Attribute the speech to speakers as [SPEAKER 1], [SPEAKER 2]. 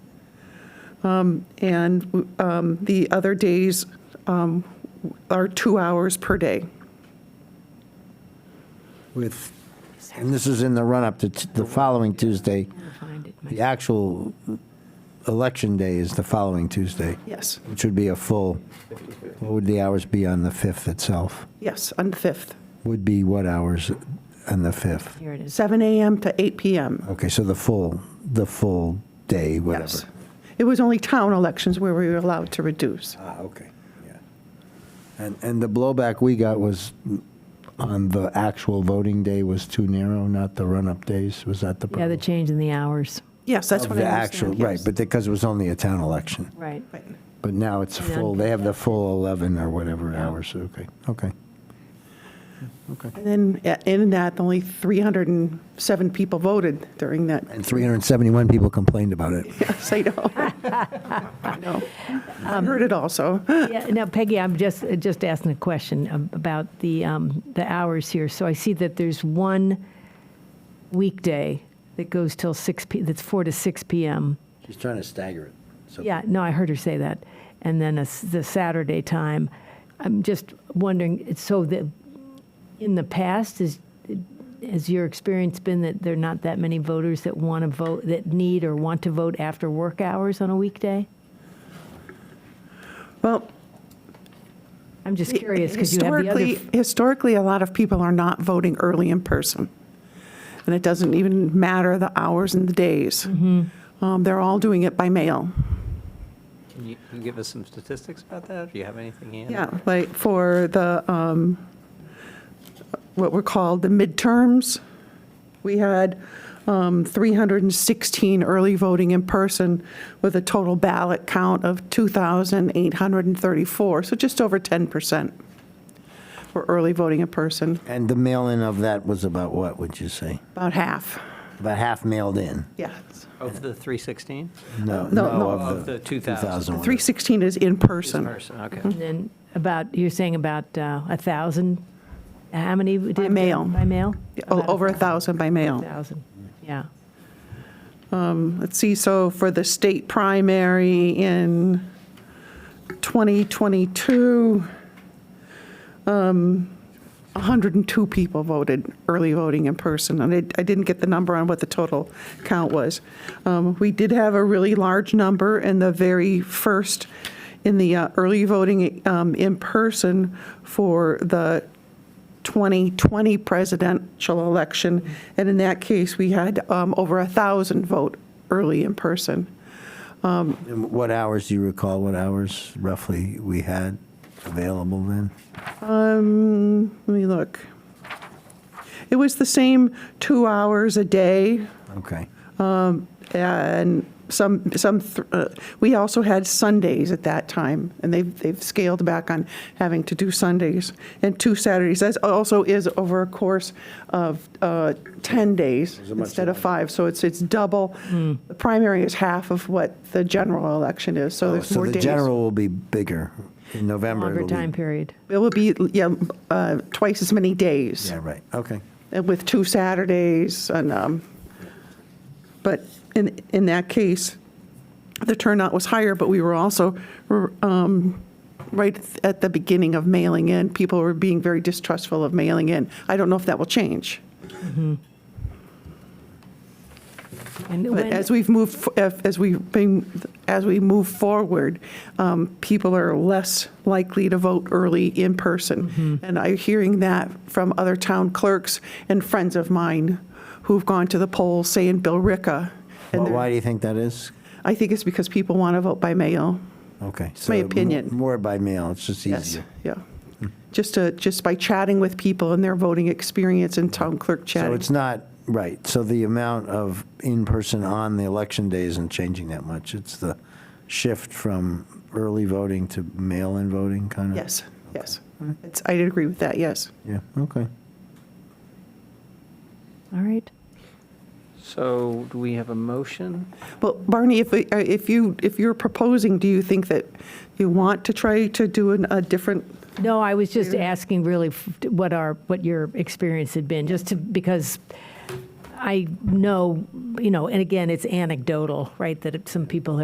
[SPEAKER 1] Um, And um, the other days um, are two hours per day.
[SPEAKER 2] with, and this is in the run-up to t- the following Tuesday.
[SPEAKER 3] Find it
[SPEAKER 2] The actual election day is the following Tuesday,
[SPEAKER 1] Yes,
[SPEAKER 2] which would be a full, what would the hours be on the 5th itself?
[SPEAKER 1] yes, on the 5th,
[SPEAKER 2] Would be what hours on the 5th?
[SPEAKER 3] Here it is.
[SPEAKER 1] seven AM to eight PM.
[SPEAKER 2] Okay, so the full, the full day, whatever.
[SPEAKER 1] Yes. It was only town elections where we were allowed to reduce.
[SPEAKER 2] Ah, okay, yeah. And, and the blowback we got was on the actual voting day was too narrow, not the run-up days, was that the
[SPEAKER 3] Yeah,
[SPEAKER 2] problem?
[SPEAKER 3] the change in the hours.
[SPEAKER 1] Yes, that's what I
[SPEAKER 2] The
[SPEAKER 1] understand.
[SPEAKER 2] actual, right, but because it was only a town election.
[SPEAKER 3] Right.
[SPEAKER 1] but.
[SPEAKER 2] But now it's
[SPEAKER 3] Yeah.
[SPEAKER 2] full, they have the full 11 or whatever hours, okay, okay. Okay.
[SPEAKER 1] And then, uh, in that, only 307 people voted during that.
[SPEAKER 2] And 371 people complained about it.
[SPEAKER 1] Yes, I know. I know. I heard it also.
[SPEAKER 3] Yeah, now Peggy, I'm just, just asking a question ab- about the, um, the hours here. So I see that there's one weekday that goes till 6 p, that's 4 to 6 p.m.
[SPEAKER 2] She's trying to stagger it, so.
[SPEAKER 3] Yeah, no, I heard her say that. And then a s the Saturday time. I'm just wondering, so the, in the past, is, has your experience been that there are not that many voters that want to vote, that need or want to vote after work hours on a weekday?
[SPEAKER 1] Well,
[SPEAKER 3] I'm just curious, because you have the other.
[SPEAKER 1] historically, historically, a lot of people are not voting early in person. And it doesn't even matter the hours and the days.
[SPEAKER 3] Mm-hmm.
[SPEAKER 1] Um, They're all doing it by mail.
[SPEAKER 4] Can you can you give us some statistics about that? Do you have anything in?
[SPEAKER 1] Yeah, like for the, um, what were called the midterms, we had um, 316 early voting in person with a total ballot count of 2,834, so just over 10% were early voting in person,
[SPEAKER 2] And the mail-in of that was about what, would you say?
[SPEAKER 1] about half,
[SPEAKER 2] About half mailed in?
[SPEAKER 1] yes.
[SPEAKER 4] Of the 316?
[SPEAKER 1] No,
[SPEAKER 2] No,
[SPEAKER 1] no.
[SPEAKER 2] no,
[SPEAKER 4] Of
[SPEAKER 2] of
[SPEAKER 4] the
[SPEAKER 2] the
[SPEAKER 4] 2,000.
[SPEAKER 2] 2,000. one.
[SPEAKER 1] 316 is in
[SPEAKER 4] This
[SPEAKER 1] person,
[SPEAKER 4] person, okay.
[SPEAKER 3] And then about, you're saying about uh, a thousand, how many? did-
[SPEAKER 1] By mail.
[SPEAKER 3] By mail?
[SPEAKER 1] o- Oh, over a 1,000 by mail.
[SPEAKER 3] Thousand, yeah.
[SPEAKER 1] Let's see, so for the state primary in 2022, um, 102 people voted, early voting in person, and I- I didn't get the number on what the total count was. Um, We did have a really large number in the very first, in the uh, early voting um, in person for the 2020 presidential election, and in that case, we had um, over a 1,000 vote early in person.
[SPEAKER 2] And What hours, do you recall what hours roughly we had available then?
[SPEAKER 1] Um, Let me look. It was the same two hours a day,
[SPEAKER 2] Okay,
[SPEAKER 1] and some, some, th- uh, we also had Sundays at that time, and they've, they've scaled back on having to do Sundays and two Saturdays. That also is over a course of uh, 10 days instead of five, so it's, it's double. The primary is half of what the general election is, so there's
[SPEAKER 2] Oh, so
[SPEAKER 1] more
[SPEAKER 2] the
[SPEAKER 1] days.
[SPEAKER 2] general will be bigger in November.
[SPEAKER 3] Longer
[SPEAKER 2] it'll be-
[SPEAKER 3] time period.
[SPEAKER 1] It will be, yeah, uh, twice as many days.
[SPEAKER 2] Yeah, right, okay.
[SPEAKER 1] and uh, with two Saturdays, and, um, but in, in that case, the turnout was higher, but we were also, um, right at the beginning of mailing in, people were being very distrustful of mailing in. I don't know if that will change,
[SPEAKER 3] And
[SPEAKER 1] but
[SPEAKER 3] when-
[SPEAKER 1] as we've moved, f- if- as we've been, as we move forward, um, people are less likely to vote early in person. And I'm hearing that from other town clerks and friends of mine who've gone to the polls, say in Billerica. and
[SPEAKER 2] Well,
[SPEAKER 1] they're-
[SPEAKER 2] why do you think that is?
[SPEAKER 1] I think it's because people want to vote by mail.
[SPEAKER 2] Okay.
[SPEAKER 1] my
[SPEAKER 2] so mo-
[SPEAKER 1] opinion.
[SPEAKER 2] More by mail, it's just
[SPEAKER 1] Yes,
[SPEAKER 2] easier.
[SPEAKER 1] yeah. Just to, just by chatting with people and their voting experience and town clerk
[SPEAKER 2] So
[SPEAKER 1] chatting.
[SPEAKER 2] it's not, right, so the amount of in-person on the election day isn't changing that much. It's the shift from early voting to mail-in voting, kind of?
[SPEAKER 1] Yes, yes. It's, I'd agree with that, yes.
[SPEAKER 2] Yeah, okay.
[SPEAKER 3] All right.
[SPEAKER 4] So do we have a motion?
[SPEAKER 1] Well, Barney, if, we- uh, if you, if you're proposing, do you think that you want to try to do an- a different?
[SPEAKER 3] No, I was just asking really f- what our, what your experience had been, just to, because I know, you know, and again, it's anecdotal, right, that some people have